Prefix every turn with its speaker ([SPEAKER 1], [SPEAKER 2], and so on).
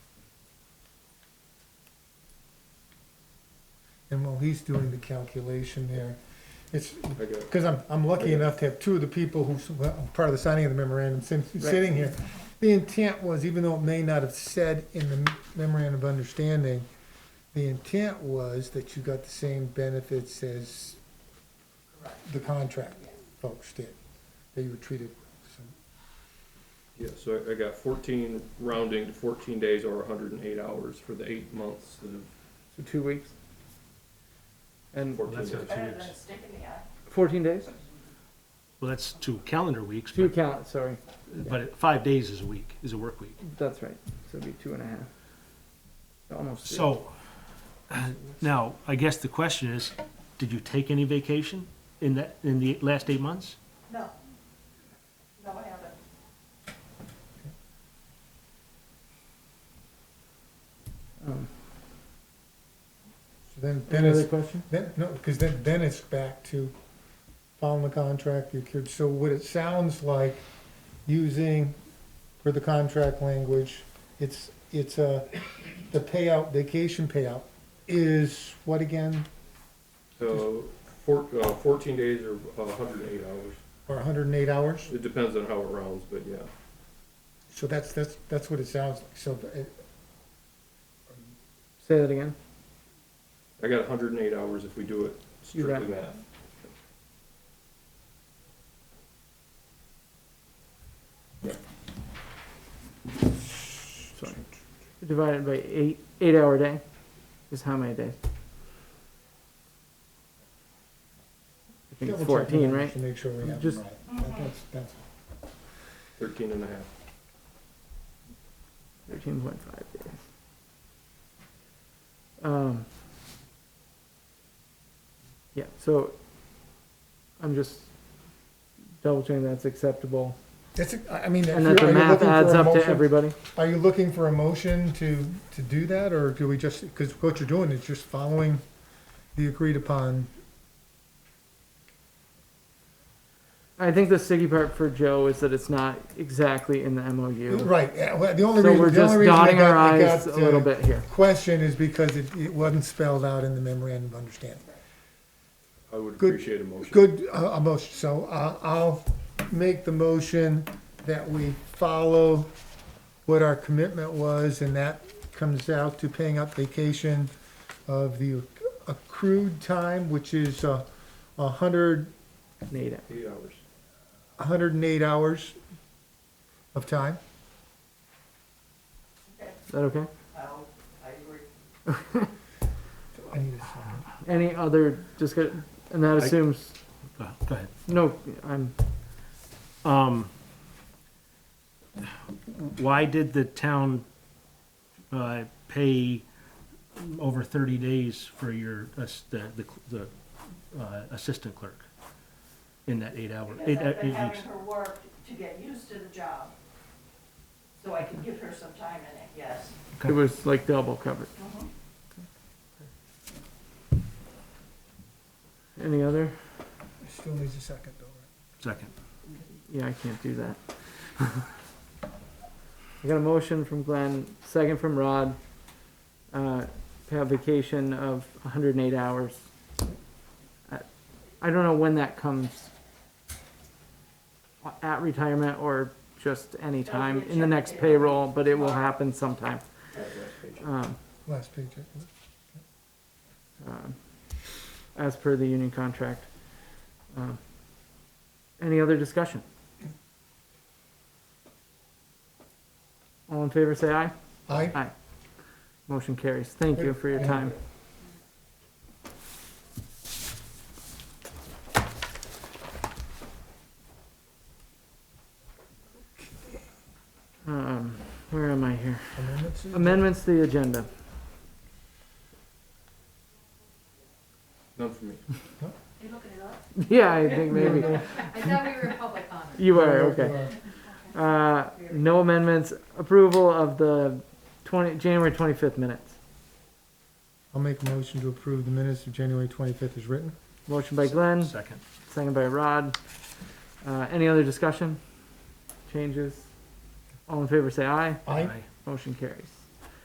[SPEAKER 1] And while he's doing the calculation there, it's,
[SPEAKER 2] I got it.
[SPEAKER 1] because I'm, I'm lucky enough to have two of the people who's, well, I'm part of the signing of the memorandum, sin- sitting here. The intent was, even though it may not have said in the memorandum of understanding, the intent was that you got the same benefits as the contract folks did, that you were treated. so.
[SPEAKER 2] Yeah, so I- I got fourteen, rounding to fourteen days or hundred and eight hours for the eight months of
[SPEAKER 3] So two weeks. And
[SPEAKER 2] fourteen
[SPEAKER 4] that's
[SPEAKER 2] days.
[SPEAKER 4] good.
[SPEAKER 5] Better than a stick in the eye.
[SPEAKER 3] fourteen days?
[SPEAKER 4] Well, that's two calendar weeks,
[SPEAKER 3] Two
[SPEAKER 4] but,
[SPEAKER 3] count, sorry,
[SPEAKER 4] but it- five days is a week, is a work week.
[SPEAKER 3] that's right, so it'd be two and a half. Almost. three.
[SPEAKER 4] So, now, I guess the question is, did you take any vacation in that, in the last eight months?
[SPEAKER 5] No. No, I haven't.
[SPEAKER 3] Um,
[SPEAKER 1] So Then, then
[SPEAKER 3] Any other
[SPEAKER 1] it's,
[SPEAKER 3] question?
[SPEAKER 1] then, no, because then, then it's back to following the contract, you could, so what it sounds like, using for the contract language, it's, it's a, the payout, vacation payout is what again?
[SPEAKER 2] So, four, uh, fourteen days or a hundred and eight hours.
[SPEAKER 1] Or hundred and eight hours?
[SPEAKER 2] It depends on how it rounds, but yeah.
[SPEAKER 1] So that's, that's, that's what it sounds like, so, uh, it-
[SPEAKER 3] Say that again.
[SPEAKER 2] I got hundred and eight hours if we do it
[SPEAKER 3] You're right.
[SPEAKER 2] strictly math.
[SPEAKER 3] Sorry. Divided by eight, eight hour day is how many days? I think
[SPEAKER 1] Double
[SPEAKER 3] it's
[SPEAKER 1] check
[SPEAKER 3] fourteen,
[SPEAKER 1] numbers
[SPEAKER 3] right?
[SPEAKER 1] To make sure we have them
[SPEAKER 3] Just-
[SPEAKER 1] right. That- That's, that's,
[SPEAKER 2] Thirteen and a half.
[SPEAKER 3] Thirteen point five days. Um. Yeah, so I'm just double checking that's acceptable
[SPEAKER 1] that's, a- I I mean. if
[SPEAKER 3] and that
[SPEAKER 1] you're-
[SPEAKER 3] the
[SPEAKER 1] are you
[SPEAKER 3] math
[SPEAKER 1] looking for
[SPEAKER 3] adds
[SPEAKER 1] a
[SPEAKER 3] up to
[SPEAKER 1] motion-
[SPEAKER 3] everybody.
[SPEAKER 1] Are you looking for a motion to, to do that, or do we just, because what you're doing is just following the agreed upon?
[SPEAKER 3] I think the sticky part for Joe is that it's not exactly in the MOU.
[SPEAKER 1] Right, yeah, well, the only
[SPEAKER 3] So we're
[SPEAKER 1] reason, the
[SPEAKER 3] just
[SPEAKER 1] only reason I
[SPEAKER 3] dotting our
[SPEAKER 1] got, I
[SPEAKER 3] eyes
[SPEAKER 1] got,
[SPEAKER 3] a little
[SPEAKER 1] uh,
[SPEAKER 3] bit here.
[SPEAKER 1] question is because it, it wasn't spelled out in the memorandum of understanding.
[SPEAKER 2] I would
[SPEAKER 1] Good-
[SPEAKER 2] appreciate a motion.
[SPEAKER 1] Good, uh, a motion, so I, I'll make the motion that we follow what our commitment was, and that comes out to paying up vacation of the accrued time, which is, uh, a hundred
[SPEAKER 3] Nate,
[SPEAKER 2] Eight hours.
[SPEAKER 1] 108 hours of time.
[SPEAKER 3] is that okay?
[SPEAKER 5] I'll, I agree.
[SPEAKER 1] I need a second.
[SPEAKER 3] Any other discussion? And that assumes,
[SPEAKER 4] Go go ahead.
[SPEAKER 3] no, I'm,
[SPEAKER 4] Um, why did the town, uh, pay over thirty days for your, ass- the, the, the, uh, assistant clerk? In that eight hour, eight,
[SPEAKER 5] Because I've been
[SPEAKER 4] eight weeks?
[SPEAKER 5] having her work to get used to the job. So I can give her some time in it, yes.
[SPEAKER 3] it was like double covered.
[SPEAKER 6] Mm-hmm.
[SPEAKER 3] Any other?
[SPEAKER 1] Still needs a second though, right?
[SPEAKER 4] Second.
[SPEAKER 3] Yeah, I can't do that. I got a motion from Glenn, second from Rod, uh, to have vacation of hundred and eight hours. I I don't know when that comes. At retirement or just any
[SPEAKER 5] That'll
[SPEAKER 3] time
[SPEAKER 5] be a
[SPEAKER 3] in the
[SPEAKER 5] check
[SPEAKER 3] next payroll,
[SPEAKER 5] payroll
[SPEAKER 3] but it will
[SPEAKER 5] tomorrow.
[SPEAKER 3] happen sometime.
[SPEAKER 2] That last page.
[SPEAKER 3] Um,
[SPEAKER 1] Last page. I think.
[SPEAKER 3] um, as per the union contract. Um, Any other discussion? All in favor, say aye.
[SPEAKER 1] Aye.
[SPEAKER 3] Aye. Motion carries. Thank you for your time. Um, where am I here?
[SPEAKER 1] Amendments?
[SPEAKER 3] Amendments to the agenda.
[SPEAKER 2] None for me.
[SPEAKER 5] You looking it up?
[SPEAKER 3] Yeah, I think maybe.
[SPEAKER 6] I thought we were public comment.
[SPEAKER 3] You are, okay. Uh, no amendments. Approval of the twenty, January twenty-fifth minutes.
[SPEAKER 1] I'll make a motion to approve the minutes of January 25th as written.
[SPEAKER 3] Motion by Glenn,
[SPEAKER 4] Second.
[SPEAKER 3] second by Rod. Uh, any other discussion? Changes? All in favor, say aye.
[SPEAKER 1] Aye.
[SPEAKER 3] Motion carries.